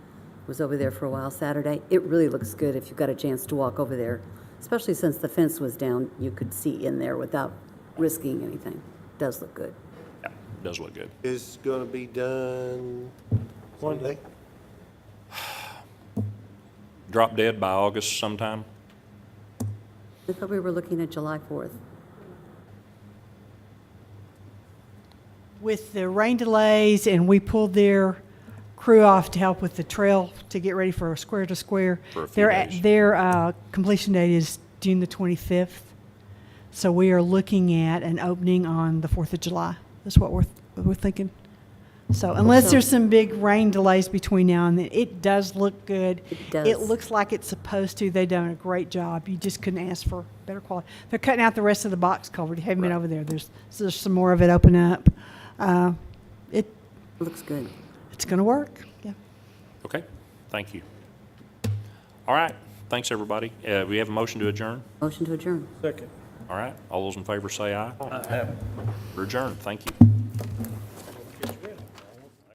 was over there for a while Saturday. It really looks good if you got a chance to walk over there, especially since the fence was down. You could see in there without risking anything. Does look good. Yeah, does look good. Is gonna be done Sunday? Drop dead by August sometime. I thought we were looking at July 4th. With the rain delays and we pulled their crew off to help with the trail to get ready for square to square. For a few Their, days. their uh, completion date is June the 25th. So we are looking at an opening on the 4th of July. That's what we're, we're thinking. So unless there's some big rain delays between now and then, it does look good. It does. It looks like it's supposed to. They've done a great job. You just couldn't ask for better quality. They're cutting out the rest of the box cover. You haven't been Right. over there. There's, so there's some more of it open up. Uh, it, Looks good. it's going to work. Yeah. Okay, thank you. All right, thanks, everybody. Uh, we have a motion to adjourn. Motion to adjourn. All right, all those in favor say aye. Aye. We're adjourned, thank you.